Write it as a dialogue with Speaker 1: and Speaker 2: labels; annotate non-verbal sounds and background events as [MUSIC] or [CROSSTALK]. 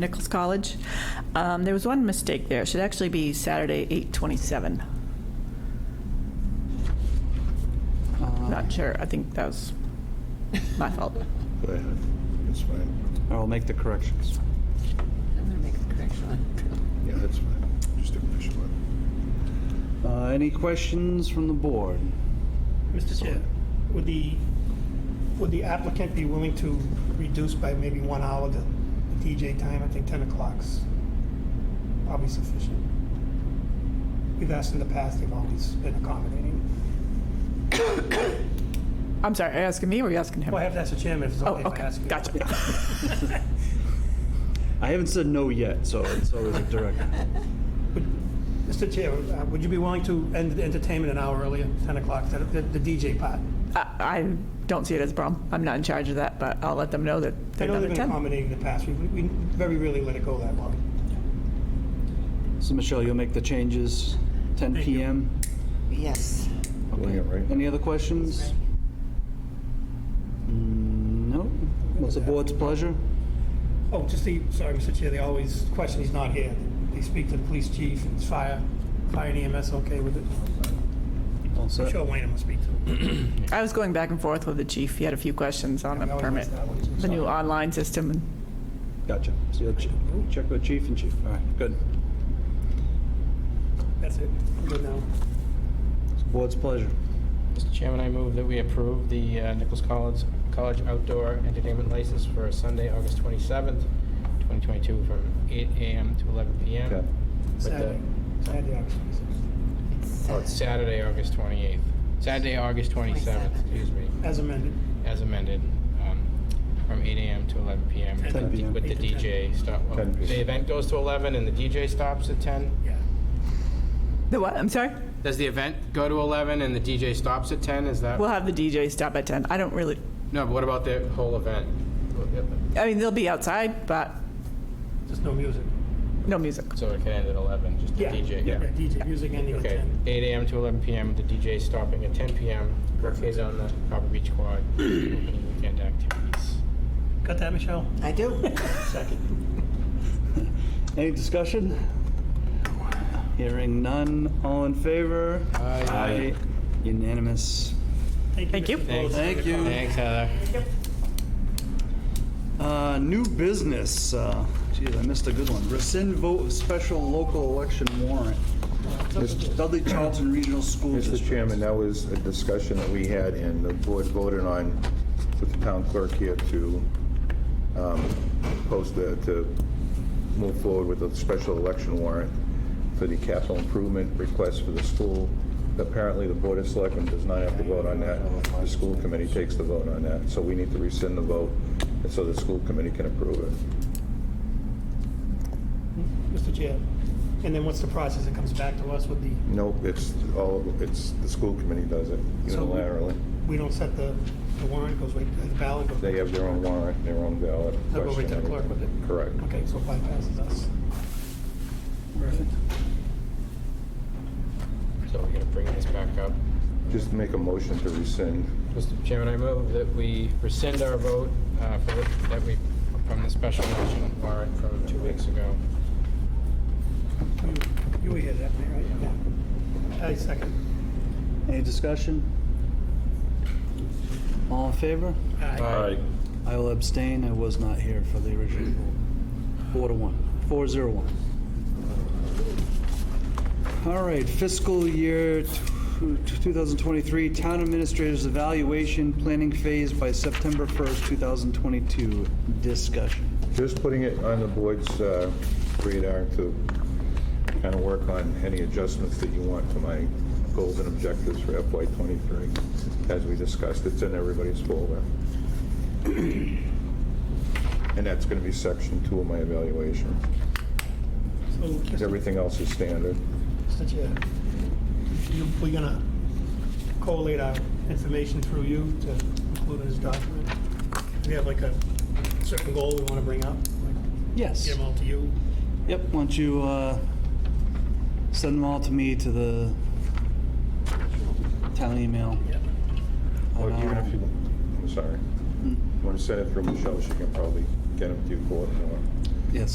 Speaker 1: Nichols College. Um, There was one mistake there. It should actually be Saturday, 8:27.
Speaker 2: Uh,
Speaker 1: Not sure. I think that was my
Speaker 2: [LAUGHS]
Speaker 1: fault.
Speaker 3: Go ahead. uh, It's fine.
Speaker 4: I will make the corrections.
Speaker 5: I'm gonna make the correction on.
Speaker 3: Yeah, that's fine. Just a question.
Speaker 4: Uh, Any questions from the board?
Speaker 2: Mr. Chair, would the, would the applicant be willing to reduce by maybe one hour the the DJ time? I think 10 o'clock's probably sufficient. We've asked in the past, they've always been accommodating.
Speaker 1: I'm sorry, are you asking me or are you asking him?
Speaker 2: Well, I have to ask the chairman if it's
Speaker 1: Oh,
Speaker 2: okay if I
Speaker 1: okay,
Speaker 2: ask. you.
Speaker 1: gotcha.
Speaker 4: I haven't said no yet, so it's always a [LAUGHS] direct.
Speaker 2: Mr. Chair, uh, would you be willing to end the entertainment an hour earlier, 10 o'clock, the- the the DJ part?
Speaker 1: I I don't see it as a problem. I'm not in charge of that, but I'll let them know that
Speaker 2: I
Speaker 1: they're
Speaker 2: know
Speaker 1: done
Speaker 2: they've
Speaker 1: at
Speaker 2: been
Speaker 1: 10.
Speaker 2: accommodating in the past. We we we very rarely let it go that long.
Speaker 4: So Michelle, you'll make the changes, 10
Speaker 2: Thank you.
Speaker 4: PM?
Speaker 5: Yes.
Speaker 3: Doing it right.
Speaker 4: Any other questions? Mm, No? What's the board's pleasure?
Speaker 2: Oh, just the, sorry, Mr. Chair, they always question he's not here. They speak to the police chief and fire, fire and EMS okay with it.
Speaker 4: All
Speaker 2: I'm
Speaker 4: set?
Speaker 2: sure Wayne will speak to him.
Speaker 1: I was going back and forth with the chief. He had a few questions on the
Speaker 2: We always
Speaker 1: permit,
Speaker 2: ask that one.
Speaker 1: the new online system. and
Speaker 4: Gotcha. So you'll che- check with chief and chief. All right, good.
Speaker 2: That's it. We're Good now.
Speaker 4: It's the Board's pleasure.
Speaker 6: Mr. Chairman, I move that we approve the uh, Nichols College, College outdoor entertainment license for Sunday, August 27th, 2022, from 8 a.m. to 11 p.m.
Speaker 4: Okay.
Speaker 6: with the-
Speaker 2: Saturday, Saturday, obviously.
Speaker 5: uh,
Speaker 6: oh, it's Saturday, August 28th. Saturday, August 27th,
Speaker 5: 27th.
Speaker 6: excuse me,
Speaker 2: As amended.
Speaker 6: as amended, um, from 8 a.m. to 11 p.m.
Speaker 2: 10
Speaker 6: with the-
Speaker 4: p.m.
Speaker 6: With the DJ stop, well,
Speaker 3: 10 p.m.
Speaker 6: the event goes to 11 and the DJ stops at 10?
Speaker 2: Yeah.
Speaker 1: The what? I'm sorry?
Speaker 6: Does the event go to 11 and the DJ stops at 10? Is that?
Speaker 1: We'll have the DJ stop at 10. I don't really,
Speaker 6: No, but what about the whole event?
Speaker 1: I mean, they'll be outside, but
Speaker 2: Just no music.
Speaker 1: no music.
Speaker 6: So it can end at 11, just the
Speaker 2: Yeah.
Speaker 6: DJ?
Speaker 2: Yeah, DJ, music and the
Speaker 6: Okay,
Speaker 2: intent.
Speaker 6: 8 AM to 11 PM, the DJ stopping at 10 PM, is on the Copper Beach Quad, opening weekend activities.
Speaker 2: Got that, Michelle?
Speaker 5: I do.
Speaker 2: Second.
Speaker 4: Any discussion? Hearing none. All in favor? Aye. Unanimous.
Speaker 1: Thank you.
Speaker 2: Mr. Pelosi.
Speaker 6: Thanks.
Speaker 4: Thank you.
Speaker 6: Thanks, Heather.
Speaker 4: Uh, New business, uh, geez, I missed a good one. Rescind vote of special local election warrant. Dudley Charlton Regional School
Speaker 3: Mr.
Speaker 4: District.
Speaker 3: Chairman, that was a discussion that we had, and the board voted on with the town clerk here to um, post the, to move forward with a special election warrant for the capital improvement request for the school. Apparently, the Board of Selectmen does not have to vote on that. The school committee takes the vote on that, so we need to rescind the vote so the school committee can approve it.
Speaker 2: Mr. Chair. And then what's the process? It comes back to us with the,
Speaker 3: Nope, it's all, it's, the school committee does it
Speaker 2: So we-
Speaker 3: unilaterally.
Speaker 2: we don't set the, the warrant goes right, the ballot goes.
Speaker 3: They have their own warrant, their own ballot.
Speaker 2: They'll go right to the clerk with it.
Speaker 3: Correct.
Speaker 2: Okay, so it bypasses us. Perfect.
Speaker 6: So we're gonna bring this back up.
Speaker 3: Just make a motion to rescind.
Speaker 6: Mr. Chairman, I move that we rescind our vote, uh, for, the- that we, from the special election warrant from two weeks ago.
Speaker 2: You- You were here that night, right? Yeah. I second.
Speaker 4: Any discussion? All in favor?
Speaker 2: Aye.
Speaker 4: I will abstain, I was not here for the original vote. Four to one, four zero one. All right, fiscal year t- 2023 Town Administrators Evaluation Planning Phase by September 1st, 2022. Discussion.
Speaker 3: Just putting it on the board's uh, radar to kind of work on any adjustments that you want to my goals and objectives for FY '23. As we discussed, it's in everybody's folder. And that's going to be section two of my evaluation.
Speaker 2: So, Mr.
Speaker 3: Everything else is standard.
Speaker 2: Mr. Chair, you- we're gonna collate our information through you to include in this document. We have like a certain goal we wanna bring up, like
Speaker 4: Yes.
Speaker 2: get them all to you.
Speaker 4: Yep, why don't you uh, send them all to me to the town email?
Speaker 2: Yeah.
Speaker 3: Or
Speaker 4: and um,
Speaker 3: even
Speaker 4: I'll-
Speaker 3: if you, I'm sorry. You want to send it through Michelle, she can probably get them to you for it.
Speaker 4: Yes.